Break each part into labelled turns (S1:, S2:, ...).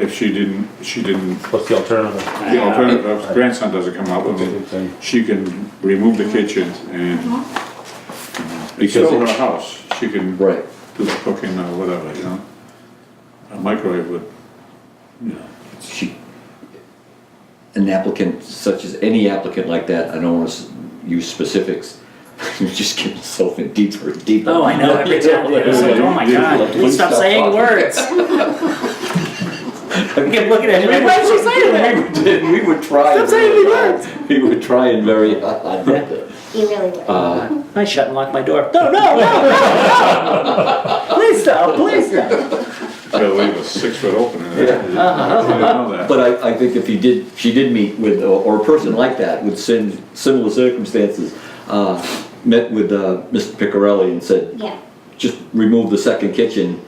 S1: if she didn't, she didn't,
S2: What's the alternative?
S1: the alternative, if grandson doesn't come out with it, she can remove the kitchen and it's still her
S2: Because,
S1: house, she can do
S3: Right.
S1: the cooking or whatever, you know? A microwave would, you know,
S3: She, an applicant such as any applicant like that, I don't want to use specifics. You're just getting yourself in deeper and deeper.
S4: Oh, I know, every time, dude. I was like, oh my god, please stop saying words. I kept looking at him, like, why did you say that?
S3: We were trying.
S4: Stop saying
S3: very
S4: the
S3: hard.
S4: words.
S3: We were trying very hard. not to-
S5: You really would.
S3: Uh,
S4: I shut and locked my door. No, no, no, no, no. Please stop, please stop.
S1: they'll leave a six foot opening there. You know that.
S3: But I, I think if you did, she did meet with, or or a person like that with sim- similar circumstances, uh, met with uh, Mr. Picarelli and said,
S5: Yeah,
S3: just remove the second kitchen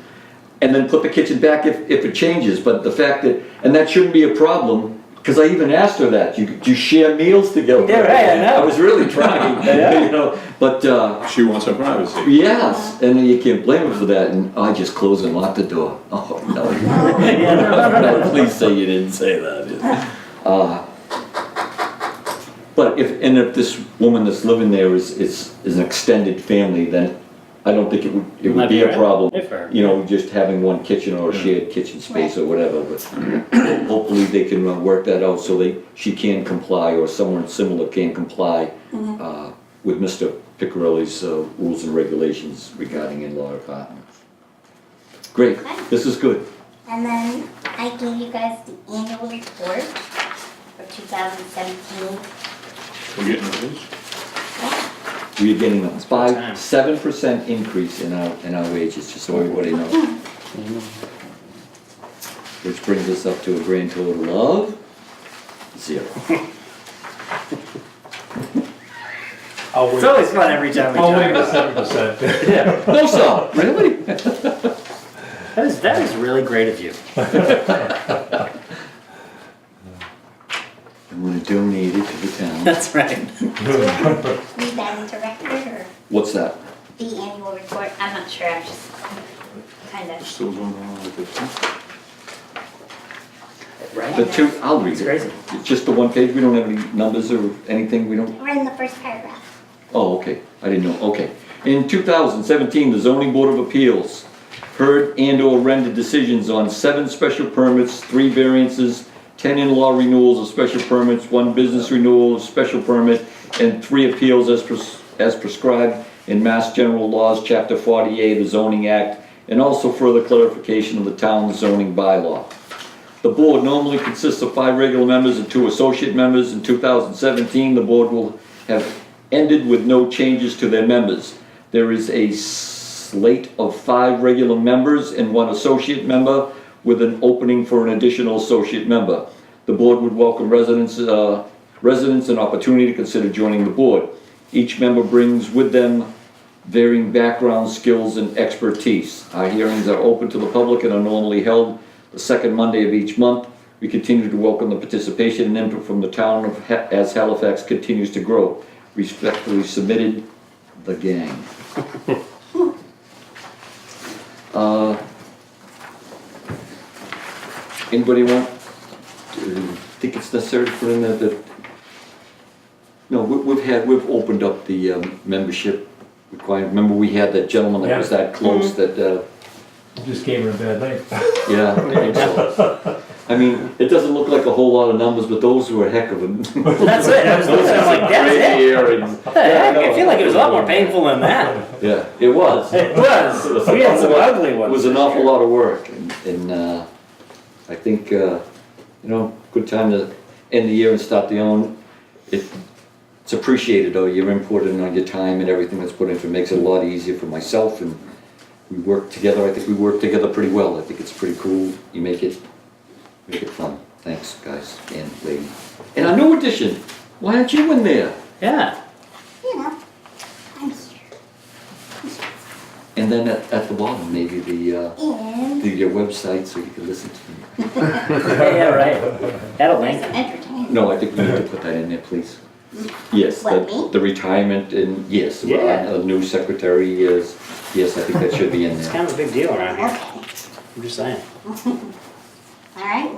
S3: and then put the kitchen back if, if it changes, but the fact that, and that shouldn't be a problem, because I even asked her that, you, you share meals together.
S4: Yeah, right, I know.
S3: was really trying, you know, but, uh,
S1: She wants her privacy.
S3: yes, and then you can't blame her for that, and I just closed and locked the door. Oh, no,
S4: Yeah, no, no, no, no.
S3: no, please say you didn't say that. Uh, But if, and if this woman that's living there is, is, is an extended family, then I don't think it would, it would
S4: Might
S3: be
S4: be
S3: a
S4: right.
S3: problem
S4: If her-
S3: you know, just having one kitchen or a shared kitchen space or whatever, but hopefully they can uh, work that out so they, she can comply or someone similar can comply uh, with Mr. Picarelli's uh, rules and regulations regarding in-law apartments. Great, this is good.
S5: and then I gave you guys the annual report for 2017.
S1: We're getting this.
S3: We're getting a
S4: time.
S3: five, seven percent increase in our, in our wages, just so everybody knows. Which brings us up to a grand total of zero. Oh,
S2: I'll
S4: It's
S2: wait,
S4: always fun every time we
S2: I'll wait
S4: talk.
S2: for seven percent.
S4: Yeah,
S3: No, sir, really?
S4: that is, that is really great of you.
S3: I'm gonna donate it to the town.
S4: That's right.
S5: Need that into record or
S3: What's that?
S5: the annual report? I'm not sure, I'm just kind of.
S1: Still going on with this. huh?
S3: The
S4: Right?
S3: two, I'll read
S4: It's
S3: it.
S4: crazy.
S3: It's just the one page, we don't have any numbers or anything, we don't,
S5: We're in the first paragraph.
S3: oh, okay, I didn't know, okay. In two thousand seventeen, the zoning board of appeals heard and or rendered decisions on seven special permits, three variances, ten in-law renewals of special permits, one business renewal of special permit, and three appeals as pres- as prescribed in Mass General Laws, Chapter forty-eight, the zoning act, and also further clarification of the town zoning bylaw. The board normally consists of five regular members and two associate members. In 2017, the board will have ended with no changes to their members. There is a slate of five regular members and one associate member with an opening for an additional associate member. The board would welcome residents, uh, residents an opportunity to consider joining the board. Each member brings with them varying background, skills, and expertise. Our hearings are open to the public and are normally held the second Monday of each month. We continue to welcome the participation and input from the town of, Ha- as Halifax continues to grow. Respectfully submitted, the gang. Uh, Anybody want, to- think it's necessary to put in there that no, we- we've had, we've opened up the um, membership requirement. Remember, we had that gentleman that was
S2: Yeah.
S3: that close that, uh,
S2: Just gave her a bad night.
S3: yeah, I think so. I mean, it doesn't look like a whole lot of numbers, but those were a heck of a.
S4: That's it. I was looking, I was like, that's
S3: Great
S4: it.
S3: hearings.
S4: What the heck? I feel like it was a lot more painful than that.
S3: Yeah, it was.
S4: It was. We had some ugly
S3: It
S4: ones.
S3: was an awful lot of work and, and, uh, I think, uh, you know, good time to end the year and start the own. It- It's appreciated, though, your input and uh, your time and everything that's put into it makes it a lot easier for myself and we work together, I think we work together pretty well, I think it's pretty cool, you make it, make it fun. Thanks, guys and lady. And our new addition, why aren't you in there?
S4: Yeah.
S5: You know, I'm here.
S3: And then at, at the bottom, maybe the, uh,
S5: And
S3: the, your website so you can listen to me.
S4: Yeah, yeah, right. That'll
S5: there's
S4: link.
S5: some entertainment.
S3: No, I think we need to put that in there, please. Yes,
S5: What,
S3: the,
S5: me?
S3: the retirement and, yes, uh,
S4: Yeah.
S3: a new secretary is, yes, I think that should be in
S4: It's
S3: there.
S4: kind of a big deal around here.
S5: Okay,
S4: I'm just saying.
S5: all all right?